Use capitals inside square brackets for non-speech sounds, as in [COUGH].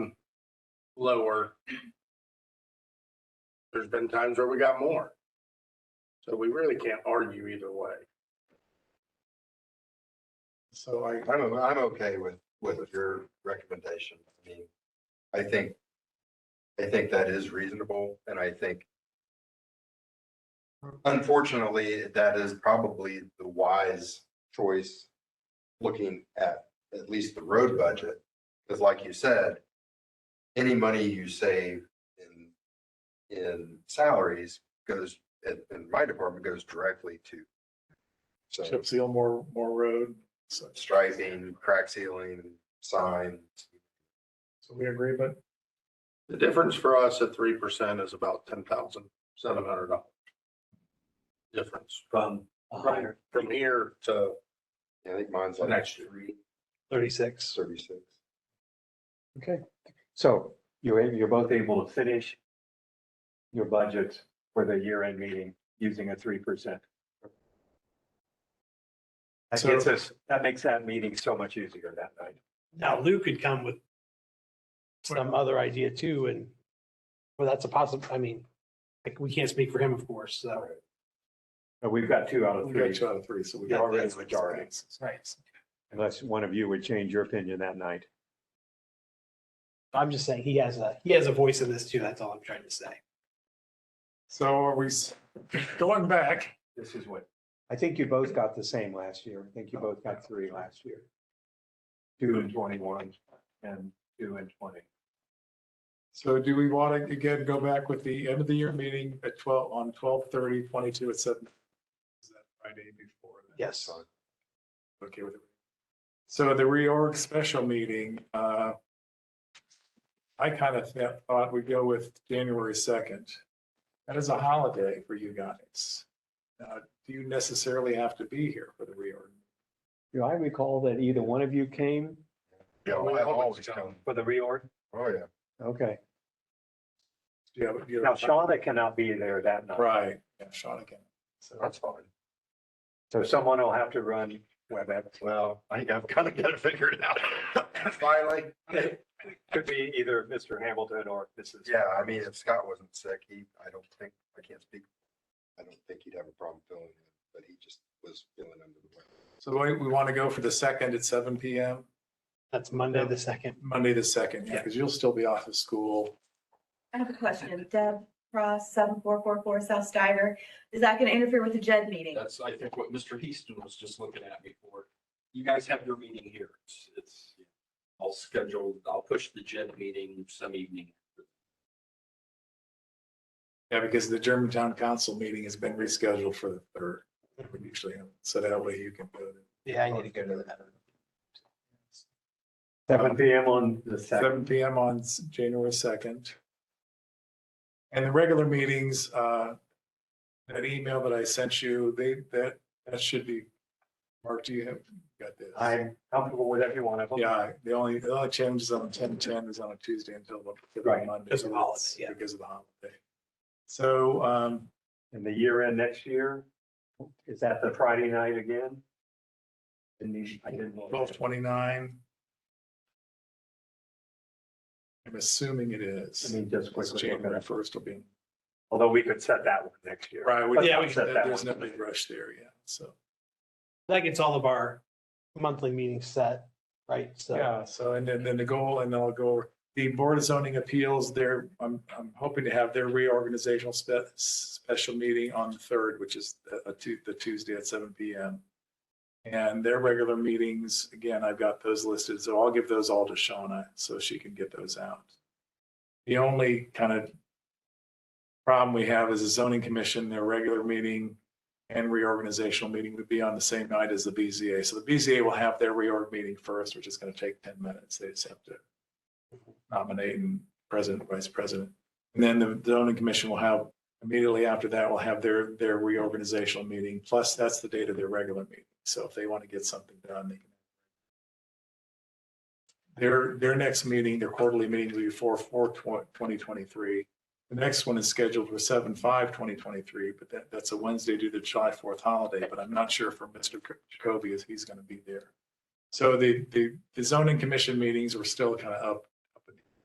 lower. There's been times where we got more. So we really can't argue either way. So I, I don't know, I'm okay with, with your recommendation. I mean, I think, I think that is reasonable and I think unfortunately, that is probably the wise choice looking at at least the road budget. Because like you said, any money you save in, in salaries goes, in, in my department goes directly to. So chip seal more, more road. So, striping, crack sealing, sign. so we agree, but The difference for us at three percent is about ten thousand seven hundred dollars. Difference from a higher from here to I think mine's the like next year. thirty-six. thirty-six. Okay, so you're, a- you're both able to finish your budget for the year-end meeting using a three percent. That So- gets us, that makes that meeting so much easier that night. Now Lou could come with some other idea too, and, well, that's a possible, I mean, like, we can't speak for him, of course, so. But we've got two out of we got three, two out of three, so we. You're got already that's- majority. Right. unless one of you would change your opinion that night. I'm just saying, he has a, he has a voice in this too, that's all I'm trying to say. So are we s- [LAUGHS] going back? This is what, I think you both got the same last year. I think you both got three last year. Two and twenty-one and two and twenty. So do we want to again go back with the end of the year meeting at twelve, on twelve thirty, twenty-two at seven? Is that Friday before? that? Yes. Okay with it. So the reorg special meeting, uh, I kind of thought we'd go with January second. That is a holiday for you guys. Uh, do you necessarily have to be here for the reorg? Do I recall that either one of you came? Yeah, We I always always come. come. For the reorg? Oh, yeah. Okay. Do you have- do you Now have- Shawna cannot be there that night, Right, yeah, Sean again. So That's fine. so someone will have to run WebEx. Well, I think I've kind of got to figure it out. [LAUGHS] Finally, Could be either Mr. Hamilton or Mrs. yeah, I mean, if Scott wasn't sick, he, I don't think, I can't speak. I don't think he'd have a problem filling in, but he just was feeling under the weather. So we, we want to go for the second at seven PM, That's Monday, the second. Monday the second, yeah, because you'll still be off of school. I have a question. Deb Ross, seven four four four South Steiger. Is that going to interfere with the JED meeting? That's, I think, what Mr. Heaston was just looking at before. You guys have your meeting here. It's, it's, I'll schedule, I'll push the JED meeting some evening. Yeah, because the Germantown Council meeting has been rescheduled for the third. We usually, have- so that way you can go to Yeah, I need to go to that. Seven PM on the second. seven PM on s- January second. And the regular meetings, uh, that email that I sent you, they, that, that should be, Mark, do you have, got this? I'm comfortable with every one of them. Yeah, the only, the only change is on ten ten is on a Tuesday until Right, the Monday. because of the holiday, yeah. Because of the holiday. So, um, And the year end next year, is that the Friday night again? And these- I didn't. look. twelve twenty-nine. I'm assuming it I is. mean, just It's quickly, look at January it. first will be. although we could set that one next year. Right, Yeah, we, we can- there's no big rush there yet, so. That gets all of our monthly meetings set, right? So Yeah, so and then, then the goal, and I'll go, over- the Board of Zoning Appeals, they're, I'm, I'm hoping to have their reorganizational spe- special meeting on the third, which is a- a Tu- the Tuesday at seven P M. And their regular meetings, again, I've got those listed, so I'll give those all to Shauna so she can get those out. The only kind of problem we have is the zoning commission, their regular meeting and reorganizational meeting would be on the same night as the BZA. So the BZA will have their reorg meeting first, which is going to take ten minutes. They just have to nominate and president, vice president. And then the zoning commission will have, immediately after that, will have their, their reorganizational meeting. Plus, that's the date of their regular meeting. So if they want to get something done, they can. Their, their next meeting, their quarterly meeting will be four, four, twenty twenty-three. The next one is scheduled for seven, five, twenty twenty-three, but that, that's a Wednesday due to July fourth holiday, but I'm not sure for Mr. Jac- Jacoby if he's going to be there. So the, the, the zoning commission meetings were still kind of up